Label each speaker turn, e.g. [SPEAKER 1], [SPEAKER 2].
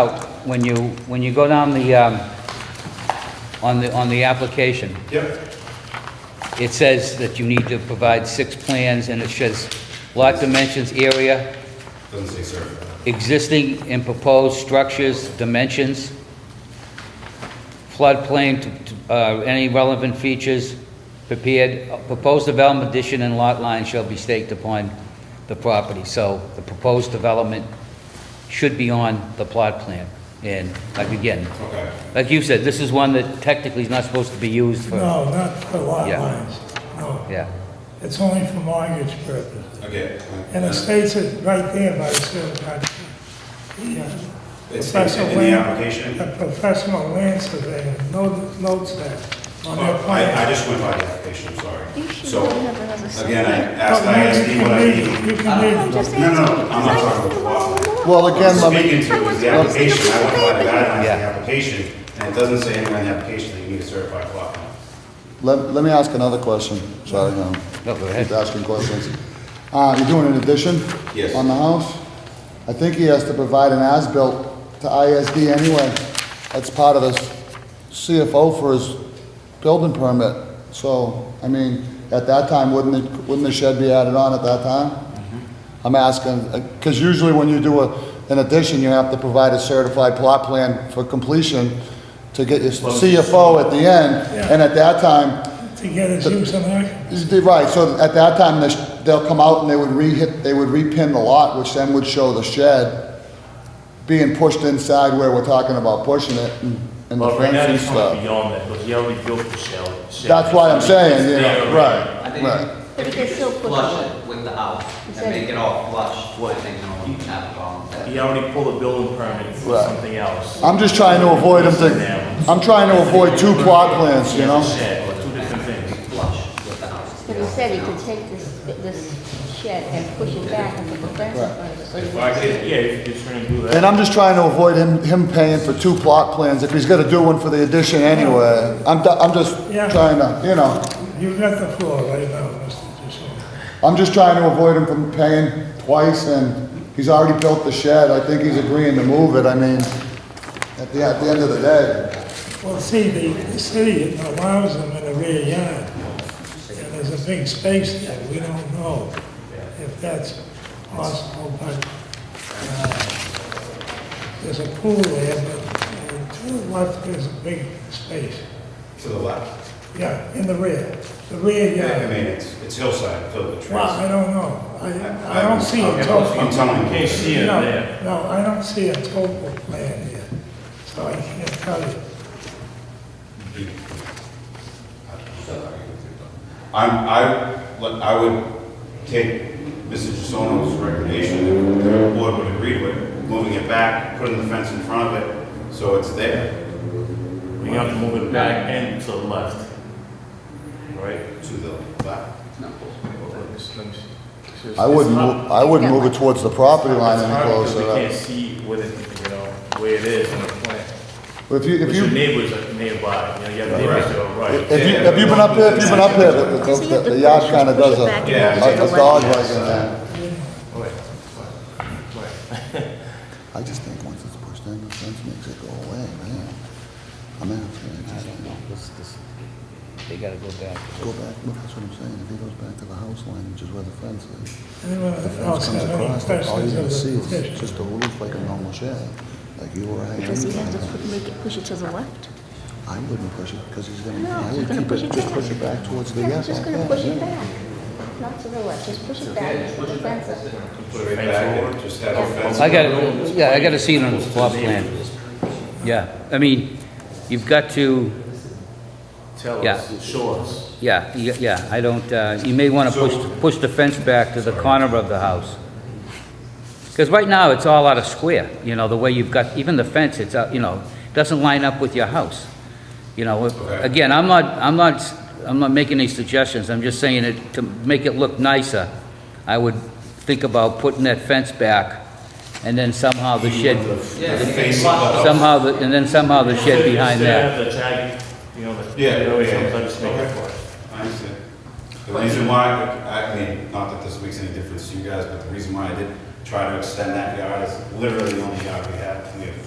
[SPEAKER 1] out when you, when you go down the, um, on the, on the application,
[SPEAKER 2] Yep,
[SPEAKER 1] it says that you need to provide six plans, and it says lot dimensions, area,
[SPEAKER 2] doesn't say certified.
[SPEAKER 1] existing and proposed structures, dimensions, floodplain, t- t- uh, any relevant features prepared, proposed development addition and lot line shall be staked upon the property. So the proposed development should be on the plot plan. And like again,
[SPEAKER 2] Okay.
[SPEAKER 1] like you said, this is one that technically is not supposed to be used for,
[SPEAKER 3] No, not for lot
[SPEAKER 1] Yeah.
[SPEAKER 3] lines, no.
[SPEAKER 1] yeah.
[SPEAKER 3] It's only for mortgage purposes.
[SPEAKER 2] Okay. Uh,
[SPEAKER 3] And it states it right there by certified. the, uh,
[SPEAKER 2] It states it in the
[SPEAKER 3] professional land-
[SPEAKER 2] application?
[SPEAKER 3] The professional land surveyor no- notes that on their
[SPEAKER 2] Oh, I, I
[SPEAKER 3] plan.
[SPEAKER 2] just went by the application, I'm sorry.
[SPEAKER 4] You should
[SPEAKER 2] So,
[SPEAKER 4] really have another survey.
[SPEAKER 2] again, I asked,
[SPEAKER 3] But
[SPEAKER 2] I
[SPEAKER 3] maybe
[SPEAKER 2] asked
[SPEAKER 3] you
[SPEAKER 2] you what I
[SPEAKER 3] can read,
[SPEAKER 2] need.
[SPEAKER 3] it, you can
[SPEAKER 4] I'm
[SPEAKER 3] read. it.
[SPEAKER 4] just
[SPEAKER 2] No, no, I'm
[SPEAKER 4] asking
[SPEAKER 2] not
[SPEAKER 4] because I
[SPEAKER 2] talking
[SPEAKER 4] didn't
[SPEAKER 2] about
[SPEAKER 4] want to know.
[SPEAKER 5] Well, again, let me,
[SPEAKER 2] Speaking to is the
[SPEAKER 4] Well, it's-
[SPEAKER 2] application, I went by the guidelines of the
[SPEAKER 1] Yeah.
[SPEAKER 2] application, and it doesn't say anywhere in the application that you need a certified plot plan.
[SPEAKER 5] let, let me ask another question. Sorry, no.
[SPEAKER 1] No, go ahead.
[SPEAKER 5] Keep asking questions. Uh, you're doing an addition?
[SPEAKER 2] Yes.
[SPEAKER 5] On the house? I think he has to provide an as-built to ISD anyway. That's part of his CFO for his building permit. So, I mean, at that time, wouldn't it, wouldn't the shed be added on at that time?
[SPEAKER 1] Mm-hmm.
[SPEAKER 5] I'm asking, because usually when you do a, an addition, you have to provide a certified plot plan for completion to get your CFO at the end.
[SPEAKER 3] Yeah.
[SPEAKER 5] And at that time,
[SPEAKER 3] To get his use and occupancy.
[SPEAKER 5] is the- Right, so at that time, they sh- they'll come out and they would re-hit, they would repin the lot, which then would show the shed being pushed inside where we're talking about pushing it and- and the
[SPEAKER 6] Well, right
[SPEAKER 5] fence
[SPEAKER 6] now,
[SPEAKER 5] and
[SPEAKER 6] he's coming
[SPEAKER 5] stuff.
[SPEAKER 6] beyond that, because he already built the shell.
[SPEAKER 5] That's what I'm saying, yeah,
[SPEAKER 7] I
[SPEAKER 5] right,
[SPEAKER 7] think
[SPEAKER 5] right.
[SPEAKER 4] But
[SPEAKER 7] if
[SPEAKER 4] it
[SPEAKER 7] you
[SPEAKER 4] gets so put
[SPEAKER 7] flush
[SPEAKER 4] on.
[SPEAKER 7] it with the house and
[SPEAKER 4] Exactly.
[SPEAKER 7] make it all flush, I think no one would have a problem with that.
[SPEAKER 6] He already pulled a building permit for
[SPEAKER 5] Right.
[SPEAKER 6] something else.
[SPEAKER 5] I'm just trying to avoid them to, I'm trying to avoid two plot plans, you know?
[SPEAKER 6] He has a shed, two different things.
[SPEAKER 7] Flush with the house.
[SPEAKER 4] But he said he could take this, this shed and push it back and put the fence in front of it. so he
[SPEAKER 2] If
[SPEAKER 4] wouldn't-
[SPEAKER 2] I could,
[SPEAKER 6] Yeah, if you're trying to do that.
[SPEAKER 5] And I'm just trying to avoid him, him paying for two plot plans if he's gonna do one for the addition anyway. I'm, do- I'm just
[SPEAKER 3] Yeah.
[SPEAKER 5] trying to, you know,
[SPEAKER 3] You got the floor right now, Mr. Jussono.
[SPEAKER 5] I'm just trying to avoid him from paying twice, and he's already built the shed, I think he's agreeing to move it, I mean, at the, at the end of the day.
[SPEAKER 3] Well, see, the, the city allows them in the rear yard, and there's a big space there, we don't know if that's possible, but, uh, there's a pool there, but uh, to the left, there's a big space,
[SPEAKER 2] to the left.
[SPEAKER 3] yeah, in the rear, the rear
[SPEAKER 2] Yeah, I
[SPEAKER 3] yard.
[SPEAKER 2] mean, it's, it's hillside, filled with trees.
[SPEAKER 3] Well, I don't know, I, I don't see a total.
[SPEAKER 2] I'm telling you.
[SPEAKER 6] Can't see it
[SPEAKER 3] No,
[SPEAKER 6] there.
[SPEAKER 3] No, I don't see a total plan here, so I can't tell you.
[SPEAKER 2] I'm, I, look, I would take Mr. Gisono's recommendation, if the board would agree to it, moving it back, putting the fence in front of it, so it's there
[SPEAKER 6] We have to move it back and to the left. Right?
[SPEAKER 2] to the left.
[SPEAKER 5] I wouldn't, mo- I wouldn't move it towards the property line
[SPEAKER 6] It's
[SPEAKER 5] any
[SPEAKER 6] hard because
[SPEAKER 5] closer.
[SPEAKER 6] We can't see what it, you know, where it is on the plan.
[SPEAKER 5] If you,
[SPEAKER 6] But
[SPEAKER 5] if
[SPEAKER 6] your
[SPEAKER 5] you,
[SPEAKER 6] neighbors are nearby, you know, you have neighbors that are right.
[SPEAKER 5] if you, have you been up there, if you've been up there, the, the- the yard kinda does a, a a dog like that. I just think once it's pushed in, the fence makes it go away, man. I mean, it's
[SPEAKER 1] I
[SPEAKER 5] just,
[SPEAKER 1] don't know, this, this, they gotta go back.
[SPEAKER 5] go back, look, that's what I'm saying, if he goes back to the house line, which is where the fence is.
[SPEAKER 3] Anyone else
[SPEAKER 5] fence
[SPEAKER 3] have
[SPEAKER 5] comes
[SPEAKER 3] any
[SPEAKER 5] across, it, all you're
[SPEAKER 3] questions
[SPEAKER 5] gonna see
[SPEAKER 3] of the
[SPEAKER 5] is
[SPEAKER 3] petition?
[SPEAKER 5] just a roof like a normal shed, like you or I.
[SPEAKER 4] Does he have to
[SPEAKER 5] anything.
[SPEAKER 4] put- make it, push it to the left?
[SPEAKER 5] I wouldn't push it, because he's gonna,
[SPEAKER 4] No,
[SPEAKER 5] I
[SPEAKER 4] he's
[SPEAKER 5] would
[SPEAKER 4] gonna
[SPEAKER 5] keep
[SPEAKER 4] push
[SPEAKER 5] it,
[SPEAKER 4] it
[SPEAKER 5] just
[SPEAKER 4] back.
[SPEAKER 5] push it back towards the,
[SPEAKER 4] Yeah,
[SPEAKER 5] yeah.
[SPEAKER 4] he's just
[SPEAKER 5] like
[SPEAKER 4] gonna
[SPEAKER 5] that,
[SPEAKER 4] push it
[SPEAKER 5] yeah.
[SPEAKER 4] back, not to the left, just push it back, and put the fence up.
[SPEAKER 2] Put it back and just have a fence.
[SPEAKER 1] I got, yeah, I gotta see it on the plot plan. Yeah, I mean, you've got to,
[SPEAKER 6] Tell
[SPEAKER 1] Yeah.
[SPEAKER 6] us, show us.
[SPEAKER 1] yeah, you- yeah, I don't, uh, you may wanna push, push the fence back to the corner of the house. Because right now, it's all out of square, you know, the way you've got, even the fence, it's, out- you know, doesn't line up with your house. You know, if-
[SPEAKER 2] Okay.
[SPEAKER 1] again, I'm not, I'm not, s- I'm not making any suggestions, I'm just saying it, to make it look nicer, I would think about putting that fence back, and then somehow the shed,
[SPEAKER 2] The face of the house.
[SPEAKER 1] somehow, the- and then somehow the shed behind that.
[SPEAKER 6] Instead of the tag, you know, the.
[SPEAKER 2] Yeah,
[SPEAKER 6] the-
[SPEAKER 2] yeah.
[SPEAKER 6] I just make it for it.
[SPEAKER 2] I understand. The reason why, I mean, not that this makes any difference to you guys, but the reason why I did try to extend that yard is literally the only yard we have. We have